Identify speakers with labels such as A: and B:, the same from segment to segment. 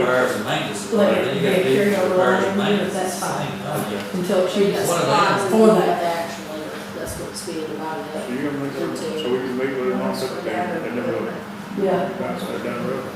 A: hours and maintenance. is
B: Like,
A: there, then you gotta
B: yeah,
A: do
B: carry over
A: repairs and
B: line, yeah,
A: maintenance,
B: that's fine.
A: same thing, yeah.
B: until
C: We
B: she
A: What
C: got
B: just,
A: are they?
C: spots
B: Or
C: and
B: that.
C: actually, that's what's being divided
D: So you're gonna make that, so we can meet with them on September, and then we'll
B: yeah.
D: bounce that down the road.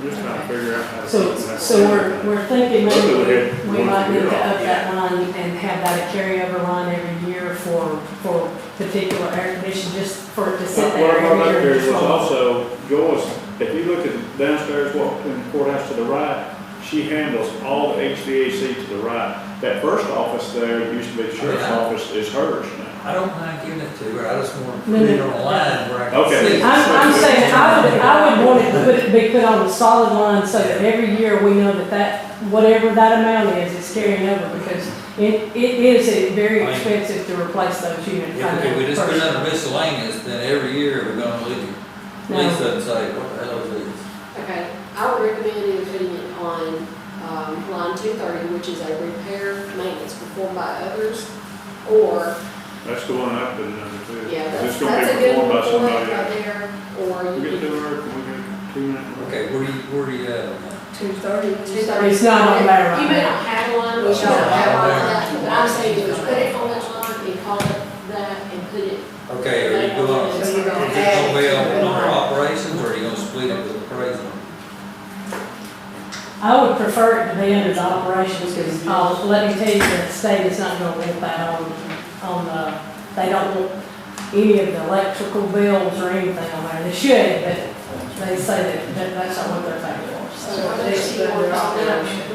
D: I'm just trying to figure out how to.
B: So,
D: fix that.
B: so we're, we're thinking
D: Look at
B: maybe
D: it.
B: we might need to up
D: Yeah.
B: that line and have that a carryover line every year for, for particular air conditioning, just for it to sit
D: What what
B: there
D: I brought up
B: every
D: here
B: year.
D: was
B: and fall.
D: also, Joyce, if you look at downstairs, walk in the courthouse to the right, she handles all the HVAC to the right. That first office there, used to be the sheriff's
A: Yeah.
D: office, is hers now.
A: I don't mind giving it to her, I just want to
B: No,
A: put it
B: no.
A: on a line where I can
D: Okay.
A: see. it.
B: I'm, I'm saying, I would, I would want it to put, be put on a solid line so that every year we know that that, whatever that amount is, it's carrying over because it, it is a very expensive to replace those units. I
A: If, if we
B: know,
A: just put it
B: personally.
A: under miscellaneous, then every year we're gonna leave, lease
B: No.
A: up and say, what the hell is this?
C: Okay, I would recommend either putting it on, um, line two thirty, which is a repair maintenance performed by others, or,
D: That's the one I've been under too.
C: yeah, that's,
D: It's gonna
C: that's a
D: be
C: good
D: performed
C: one
D: by
C: for it
D: somebody
C: right
D: else.
C: there, or
D: We
C: you
D: get to
C: can.
D: work, we get two minutes.
A: Okay, where do you, where do you uh, have?
E: Two thirty.
C: Two thirty.
B: It's not on there right
C: You may
B: now.
C: not have one, we should
A: No.
C: have one, of that, but I'm saying, just put it on that line and call it that and put it uh,
A: Okay, are you going, is
E: So
A: it
E: you're gonna add
A: gonna be
E: it to
A: on
E: the
A: number
E: line.
A: operations, or are you gonna split it with appraisal?
B: I would prefer it to be under the operations, because, uh, let me tell you, the state is not gonna want that on, on, uh, they don't want any of the electrical bills or anything on there, they should, but they say that, that that's not what they're paying for,
C: So
B: so.
C: how much do you want off that?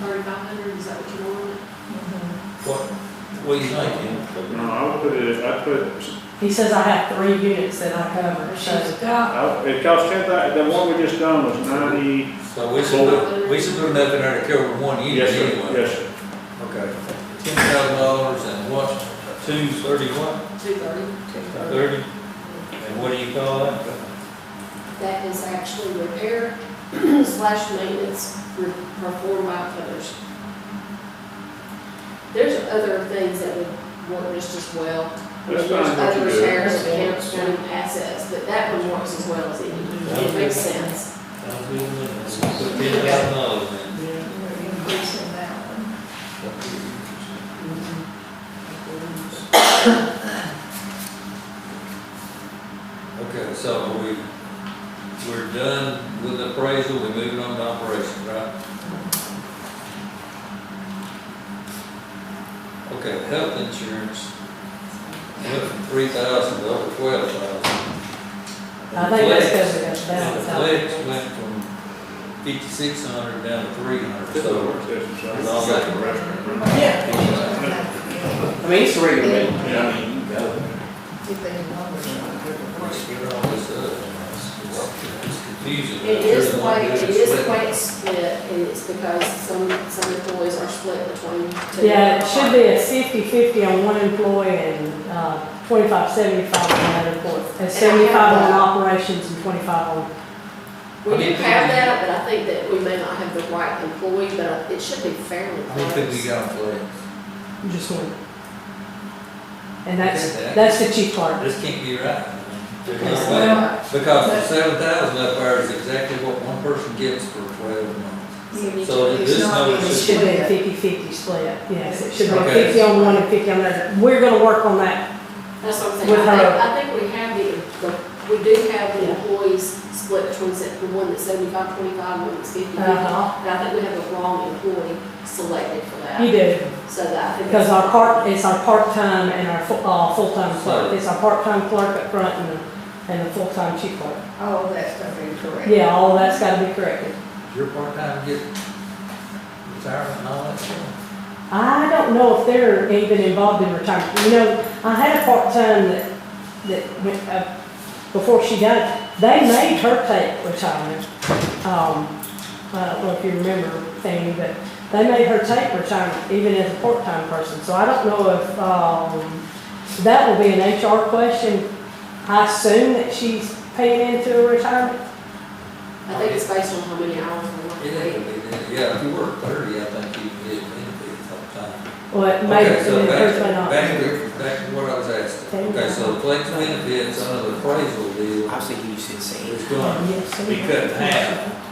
C: Thirty-five hundred, is that what you want?
A: What, what do you think?
D: No, I would put it, I put
B: He says I have three units that I cover, so,
E: She's got,
D: I- It cost ten thousand, the one we just done was ninety.
A: So we should, put- we should put enough in there to cover one year
D: Yes, sir,
A: anyway.
D: yes, sir.
A: Okay, ten thousand dollars and what, two thirty what?
C: Two thirty.
A: Thirty? And what do you call that?
C: That is actually repair slash maintenance re- performed by others. There's other things that would work just as well. I mean,
D: That's
C: There's
D: fine, what
C: other
D: you do.
C: shares, accounts, and assets, but that one works as well as any. It makes sense.
A: Ten thousand dollars then.
E: you're increasing that one.
A: Okay, so we, we're done with the appraisal, we're moving on to operations, right? Okay, health insurance, went from three thousand to over twelve thousand.
B: I think that's because we got the
A: And the flex
B: balance out.
A: went from fifty-six hundred down to three hundred,
D: That's the
A: so.
D: work session, so.
A: It's all that.
D: Restaurant.
A: uh,
E: Yeah.
F: I mean, it's regular,
D: Yeah.
F: I mean, you go.
E: If they can numbers,
A: Let's get all this up. It's- It's confusing.
C: It is the way, it is the way it's split, and it's because some, some employees are split between two.
B: Yeah, it should be a fifty-fifty on one employee and, uh, twenty-five, seventy-five on another employee. And seventy-five on operations and twenty-five on
C: We do have that, but I think that we may not have the right employee, but it should be fairly
A: I
C: close.
A: don't think we got a flex.
B: Just one. And that's,
A: Look at that.
B: that's the chief clerk.
A: This can't be right. There's no
C: It's
A: way.
C: not.
A: Because the seven thousand up there is exactly what one person gets for twelve months. So this
E: it's not
A: notice
E: being
B: It
A: is-
B: should be a
E: split.
B: 50-50 split, yes, it should be
A: Okay.
B: fifty on one and fifty on the other. We're gonna work on that.
C: That's what
B: With
C: I'm saying,
B: her-
C: I think, I think we have the, the, we do have the employees split between, se- the one that's seventy-five, twenty-five, one that's fifty.
B: Uh-huh.
C: And I think we have the wrong employee selected for
B: You
C: that,
B: do,
C: so that I think.
B: because our part, it's our part-time and our fu- uh, full-time clerk. It's our part-time clerk up front and the, and the full-time chief clerk.
E: all of that stuff is correct.
B: Yeah, all that's gotta be corrected.
A: Your part-time get retirement and all that stuff.
B: I don't know if they're even involved in retirement. You know, I had a part-time that, that went, uh, before she got, they made her take retirement. Um, I don't know if you remember, Fanny, but they made her take retirement even as a part-time person. So I don't know if, um, that will be an HR question. I assume that she's paying into a retirement.
C: I think it's based on how many hours we work.
A: It ain't gonna be that. Yeah, if you work thirty, I think you can get benefits all the time.
B: Well, it may,
A: Okay,
B: it
A: so back,
B: may not.
A: back to, back to what I was asking. Okay, so flex benefits under the appraisal deal
F: I was thinking you should say.
A: is going
B: Yes,
A: to
B: sir.
A: be cut in half.